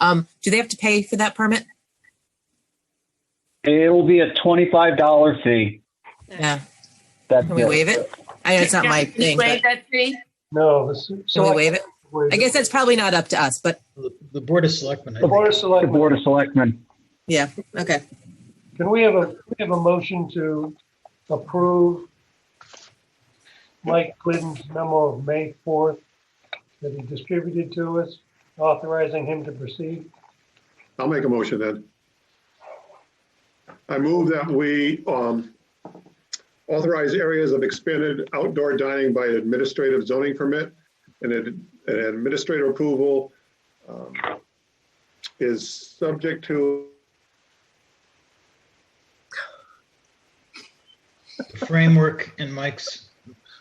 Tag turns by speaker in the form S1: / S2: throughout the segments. S1: Um, do they have to pay for that permit?
S2: It will be a twenty-five dollar fee.
S1: Yeah.
S2: That's
S1: Can we waive it? I know it's not my
S3: Can you
S1: thing,
S3: waive
S1: but
S3: that fee?
S4: No, this.
S1: can we waive it? I guess that's probably not up to us, but
S5: The the Board of Selectmen, I
S4: The Board
S5: think.
S4: of
S2: The
S4: Selectmen,
S2: Board of Selectmen.
S1: yeah, okay.
S4: can we have a, can we have a motion to approve Mike Glidden's memo of May 4th that he distributed to us, authorizing him to proceed?
S6: I'll make a motion then. I move that we um, authorize areas of expanded outdoor dining by administrative zoning permit and an an administrative approval um, is subject to,
S5: The framework in Mike's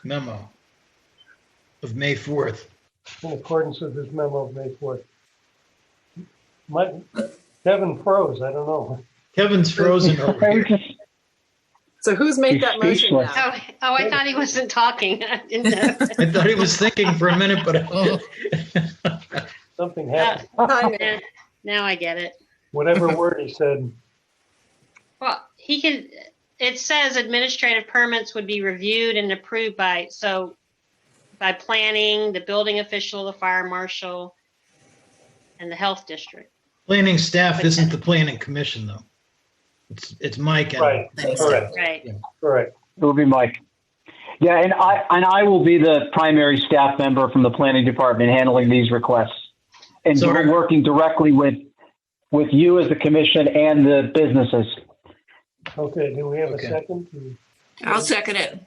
S5: memo of May 4th.
S4: in accordance with his memo of May 4th. Mike, Kevin froze, I don't know.
S5: Kevin's frozen over here.
S7: So who's made that motion
S2: Speechless.
S7: now?
S3: Oh, oh, I thought he wasn't talking. I didn't know.
S5: I thought he was thinking for a minute, but
S4: Something happened,
S7: Tanya,
S3: Yeah, Now I get it.
S4: whatever word he said.
S3: Well, he can, it says administrative permits would be reviewed and approved by, so by planning, the building official, the fire marshal, and the health district.
S5: planning staff isn't the planning commission, though. It's, it's Mike. and-
S4: Right, correct,
S3: Right.
S4: correct.
S2: It'll be Mike. Yeah, and I, and I will be the primary staff member from the planning department handling these requests. And
S5: So are-
S2: working directly with, with you as the commission and the businesses.
S4: Okay, do we have a
S5: Okay.
S4: second?
S7: I'll second it.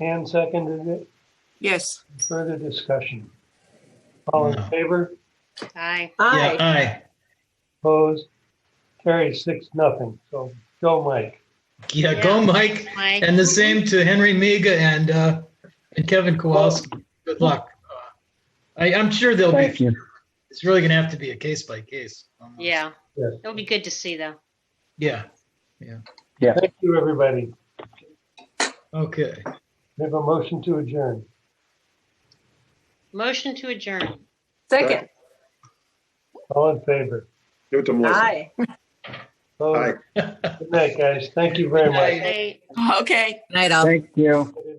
S4: Ann seconded it,
S7: Yes.
S4: further discussion. All in
S5: No.
S4: favor,
S3: Aye.
S5: Yeah,
S7: Aye.
S5: aye.
S4: opposed, carries six, nothing. So go, Mike.
S5: Yeah, go,
S3: Yeah.
S5: Mike.
S3: Mike?
S5: And the same to Henry Miga and, uh, and Kevin Kowalski. Good luck. I, I'm sure they'll
S2: Thank
S5: be,
S2: you.
S5: it's really gonna have to be a case by case. almost.
S3: Yeah.
S4: Yes.
S3: It'll be good to see though.
S5: Yeah,
S4: Thank you, everybody.
S5: okay.
S4: We have a motion to adjourn.
S3: Motion to adjourn.
S7: Second.
S4: All in favor.
S6: give it to Melissa.
S7: Aye.
S4: Opposed? Good night, guys. Thank you very much.
S3: Say-
S7: Okay.
S1: Night, all.
S2: Thank you.